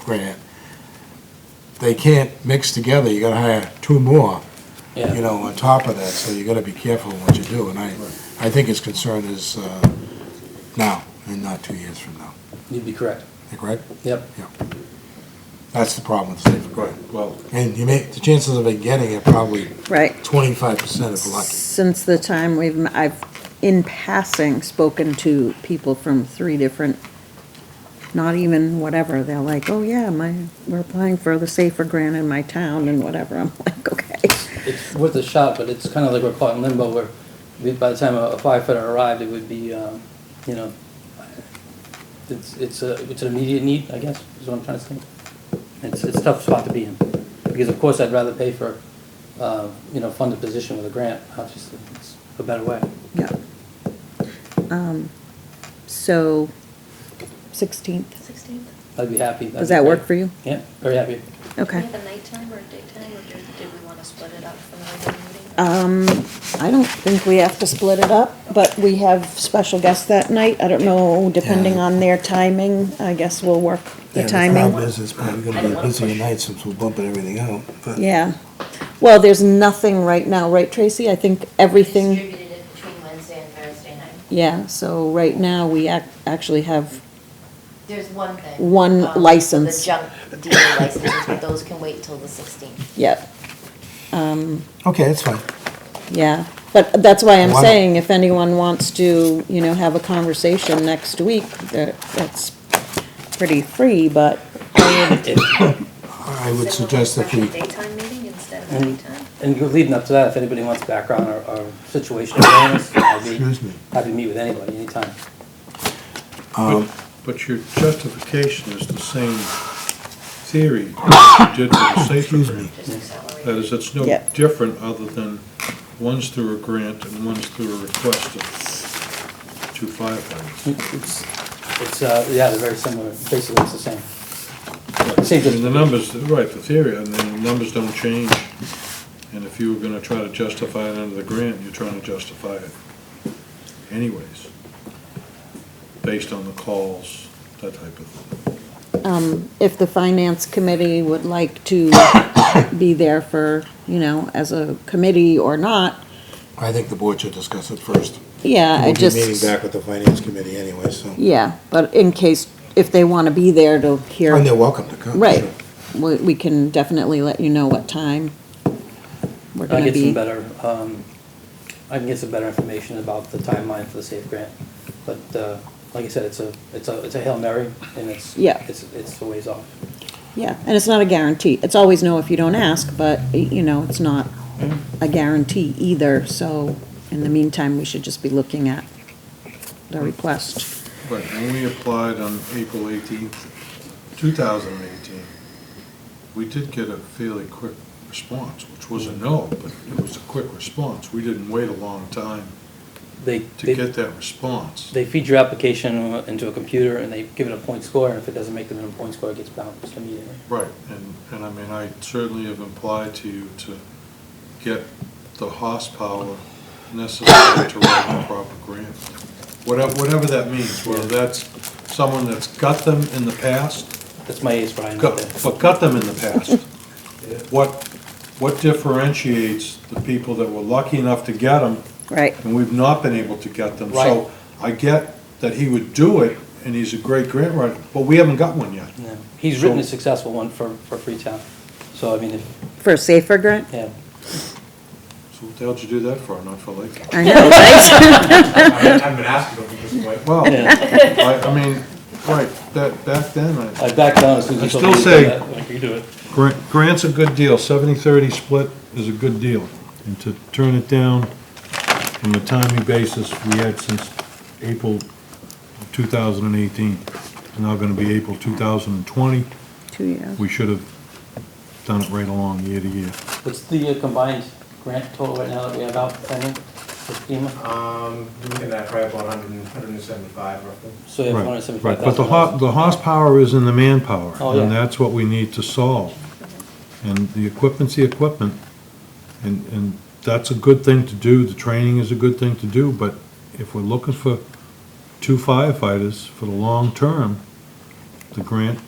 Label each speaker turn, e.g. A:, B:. A: grant, they can't mix together, you gotta hire two more, you
B: Yeah,
A: know, on top of that, so you gotta be careful what you do, and I, I think his concern is, uh, now, and not two years from now,
B: you'd be correct.
A: Am I correct?
B: Yep.
A: That's the problem with safer grant.
C: Well,
A: And you may, the chances of it getting it probably
D: Right.
A: twenty-five percent if lucky.
D: Since the time we've, I've, in passing, spoken to people from three different, not even whatever, they're like, oh yeah, my, we're applying for the safer grant in my town and whatever. I'm like, okay.
B: It's worth a shot, but it's kind of like we're caught in limbo where we- by the time a firefighter arrived, it would be, um, you know, it's, it's a, it's an immediate need, I guess, is what I'm trying to say. It's, it's a tough spot to be in, because of course I'd rather pay for, uh, you know, fund a position with a grant, obviously, it's a better way.
D: Yeah. Um, So, 16th,
E: Sixteenth?
B: I'd be happy. That'd
D: does
B: be
D: that work
B: great.
D: for you?
B: Yeah, very happy.
D: Okay.
E: Do we have a nighttime or a daytime, or do- did we want to split it up from the regular meeting?
D: Um, I don't think we have to split it up, but we have special guests that night. I don't know, depending
A: Yeah.
D: on their timing, I guess we'll work the
A: Yeah,
D: timing.
A: the problem is, it's probably
E: I
A: gonna
E: don't
A: be
E: wanna
A: busy
E: push.
A: night since we're bumping everything out, but.
D: Yeah. Well, there's nothing right now, right, Tracy? I think everything,
F: Distributed it between Wednesday and Thursday night.
D: yeah, so right now, we ac- actually have,
F: There's one thing.
D: One
F: um,
D: license.
F: The junk dealer licenses, but those can wait till the sixteenth.
D: yeah. Um,
A: Okay, that's fine.
D: yeah, but that's why I'm
A: Why not?
D: saying, if anyone wants to, you know, have a conversation next week, that, that's pretty free, but
A: I would
E: So we'll
A: suggest that
E: have a
A: we,
E: Daytime meeting instead of a
B: And-
E: nighttime?
B: And leading up to that, if anybody wants background or, or situation awareness, I'd be
A: Excuse me.
B: happy to meet with anybody, anytime.
A: um,
C: but your justification is the same theory that you did for the safer
A: excuse me.
C: grant.
E: Just accelerate.
C: That is, it's no
D: Yeah.
C: different other than one's through a grant and one's through a request of two firefighters.
B: It's, it's, uh, yeah, they're very similar, basically it's the same. Same
C: And the
B: thing.
C: numbers, right, the theory, and the numbers don't change. And if you were gonna try to justify it under the grant, you're trying to justify it anyways, based on the calls, that type of thing.
D: um, if the finance committee would like to be there for, you know, as a committee or not,
A: I think the board should discuss it first.
D: yeah, I just.
A: We'll be meeting back with the finance committee anyway, so,
D: Yeah, but in case, if they want to be there to hear,
A: and they're welcome to come.
D: right,
A: sure.
D: we, we can definitely let you know what time we're
B: I
D: gonna
B: get some
D: be.
B: better, um, I can get some better information about the timeline for the SAFE grant. But, uh, like I said, it's a, it's a, it's a Hail Mary and it's,
D: Yeah.
B: it's, it's a ways off.
D: Yeah, and it's not a guarantee. It's always no if you don't ask, but, y- you know, it's not a guarantee either, so in the meantime, we should just be looking at the request.
C: Right, when we applied on April eighteenth, two thousand and eighteen, we did get a fairly quick response, which was a no, but it was a quick response. We didn't wait a long time
B: They,
C: to
B: they,
C: get that response.
B: they feed your application into a computer and they give it a point score and if it doesn't make them a point score, it gets bounced immediately.
C: Right, and, and I mean, I certainly have implied to you to get the horsepower necessary to write a proper grant. Whatever, whatever that means, whether that's someone that's got them in the past,
B: That's my ace, Brian. right there.
C: Cut- But cut them in the past. What, what differentiates the people that were lucky enough to get them,
D: Right,
C: and we've not been able to get them?
B: Right.
C: So I get that he would do it, and he's a great grant writer, but we haven't got one yet.
B: Yeah. He's written a
C: So-
B: successful one for, for Freetown. So, I mean, if,
D: for a safer grant?
B: yeah,
C: So what the hell did you do that for, not for Lake?
D: I know, right?
G: I haven't been asking them because like,
C: Well, I, I mean, right, that, back then, I,
B: I backed down as soon as
C: I
B: he told me
C: still
B: to do
C: say-
B: that. Like, you do it.
C: Gra- grant's a good deal, seventy-thirty split is a good deal. And to turn it down on a timely basis, we had since April two thousand and eighteen. It's now gonna be April two thousand and twenty.
D: Two years.
C: We should have done it right along, year to year.
B: What's the uh, combined grant total right now that we have out pending with FEMA?
G: um, doing that probably about 100, 175 roughly.
B: So you have
C: Right,
B: one hundred
C: right.
B: seventy-five
C: But the
B: thousand
C: ho,
B: dollars.
C: the horsepower is in the manpower.
B: Oh, yeah.
C: And that's what we need to solve. And the equipment's the equipment, and, and that's a good thing to do, the training is a good thing to do, but if we're looking for two firefighters for the long term, the grant